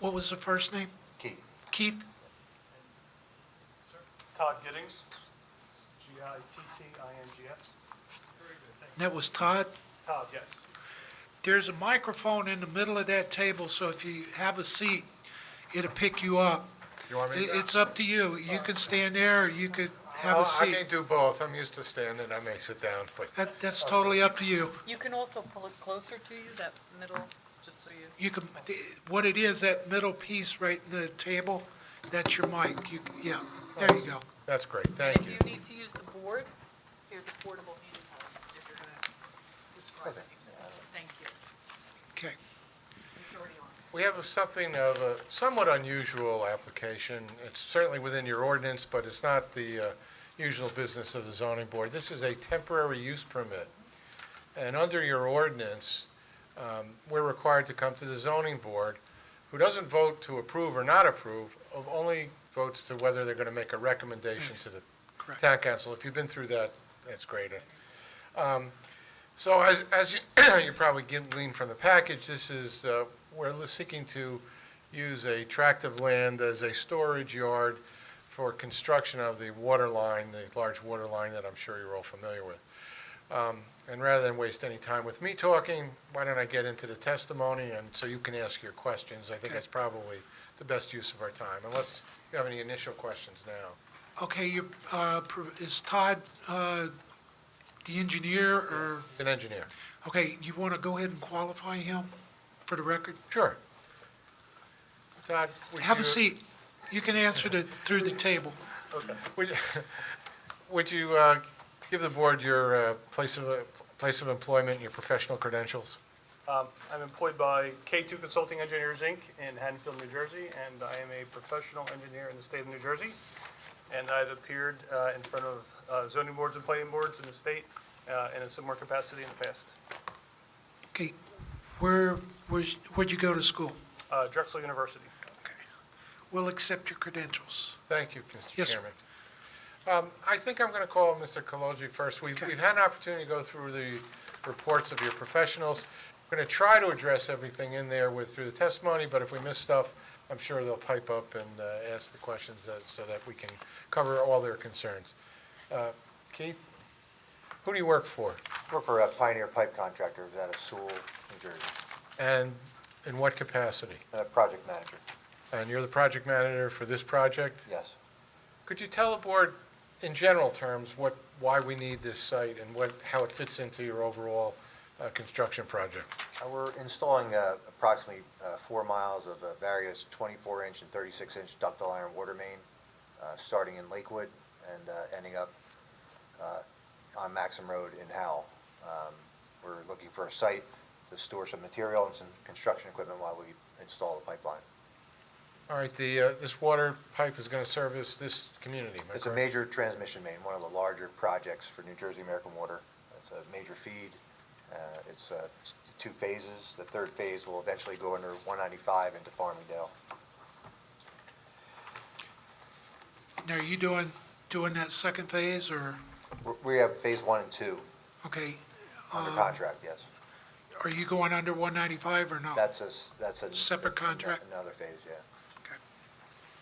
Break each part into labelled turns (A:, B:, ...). A: What was the first name?
B: Keith.
A: Keith?
C: Todd Gittings, G-I-T-T-I-N-G-S.
A: And That was Todd?
C: Todd, yes.
A: There's a microphone in the middle of that table, so if you have a seat, it'll pick you up.
D: You want me
A: It-
D: to?
A: It's up to you. You can stand there, or you could have
D: Well,
A: a
D: Oh, I may
A: seat.
D: do both. I'm used to standing. I may sit down, but
A: That, that's totally up to you.
E: You can also pull it closer to you, that middle, just so you,
A: You can, what it is, that middle piece right in the table, that's your mic. You, yeah, there you go.
D: that's great.
E: and
D: Thank
E: if
D: you.
E: you need to use the board, here's a portable handheld, if you're gonna describe it. Thank you.
A: Okay.
E: It's already on.
D: We have something of a somewhat unusual application. It's certainly within your ordinance, but it's not the uh, usual business of the zoning board. This is a temporary use permit. And under your ordinance, um, we're required to come to the zoning board, who doesn't vote to approve or not approve, of- only votes to whether they're going to make a recommendation to the
A: Correct.
D: town council. If you've been through that, that's great. Um, So as, as you, you probably get- gleaned from the package, this is, uh, we're seeking to use a tract of land as a storage yard for construction of the water line, the large water line that I'm sure you're all familiar with. Um, And rather than waste any time with me talking, why don't I get into the testimony, and so you can ask your questions? I think that's probably the best use of our time, unless you have any initial questions now.
A: Okay, you, uh, pro- is Todd, uh, the engineer or,
D: An engineer.
A: okay, you want to go ahead and qualify him for the record?
D: Sure. Todd, would you...
A: Have a seat. You can answer the, through the table.
D: Would you- would you uh, give the board your uh, place of, place of employment and your professional credentials?
C: Um, I'm employed by K2 Consulting Engineers, Inc. in Haddonfield, New Jersey, and I am a professional engineer in the state of New Jersey. And I've appeared uh, in front of uh, zoning boards and planning boards in the state uh, in a similar capacity in the past.
A: Okay, where, where's- where'd you go to school?
C: Uh, Drexel University.
A: We'll accept your credentials.
D: Thank you, Mr.
A: Yes, sir.
D: Chairman. Um, I think I'm going to call Mr. Kaloji first. We've
A: Okay.
D: we've had an opportunity to go through the reports of your professionals. We're going to try to address everything in there with, through the testimony, but if we miss stuff, I'm sure they'll pipe up and uh, ask the questions that- so that we can cover all their concerns. Uh, Keith, who do you work for,
B: Work for uh, Pioneer Pipe Contractors out of Sewell, New Jersey,
D: and in what capacity?
B: Uh, project manager,
D: And you're the project manager for this project?
B: yes.
D: Could you tell the board, in general terms, what, why we need this site and what, how it fits into your overall uh, construction project?
B: Uh, We're installing uh, approximately uh, four miles of uh, various 24-inch and 36-inch ductile iron water main, uh, starting in Lakewood and uh, ending up uh, on Maxim Road in Howell. Um, We're looking for a site to store some material and some construction equipment while we install the pipeline.
D: All right, the, uh, this water pipe is going to service this community, am I
B: It's a
D: correct?
B: major transmission main, one of the larger projects for New Jersey American Water. It's a major feed. Uh, It's uh, s- two phases. The third phase will eventually go under 195 into Farmingdale.
A: Now, are you doing, doing that second phase or,
B: W- We have phase one and two
A: okay,
B: under
A: Um,
B: contract, yes.
A: are you going under 195 or no?
B: That's a, s- that's a.
A: Separate contract?
B: Another phase, yeah.
A: Okay.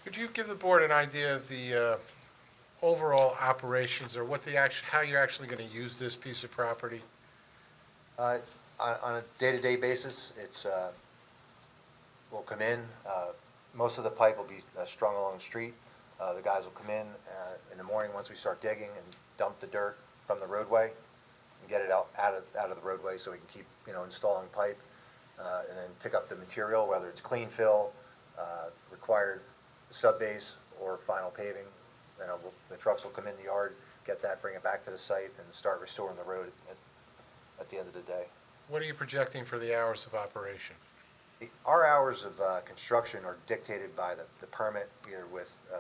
D: Could you give the board an idea of the uh, overall operations or what the, act- how you're actually going to use this piece of property?
B: Uh, On on a day-to-day basis, it's, uh, will come in, uh, most of the pipe will be uh, strung along the street. Uh, The guys will come in uh, in the morning, once we start digging, and dump the dirt from the roadway, and get it out, out of, out of the roadway, so we can keep, you know, installing pipe, uh, and then pick up the material, whether it's clean fill, uh, required subbase, or final paving. Then I will- the trucks will come in the yard, get that, bring it back to the site, and start restoring the road at, at the end of the day.
D: What are you projecting for the hours of operation?
B: The- Our hours of uh, construction are dictated by the the permit, either with uh,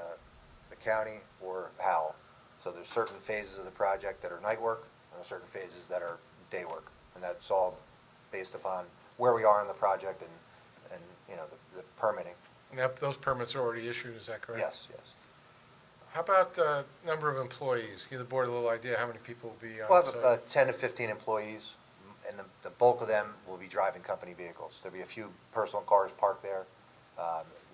B: the county or HAL. So there's certain phases of the project that are night work, and there's certain phases that are day work. And that's all based upon where we are in the project and, and, you know, the- the permitting.
D: And that- those permits are already issued, is that correct?
B: Yes, yes.
D: How about the number of employees? Give the board a little idea how many people will be on site?
B: We'll have about 10 to 15 employees, m- and the- the bulk of them will be driving company vehicles. There'll be a few personal cars parked there, Um,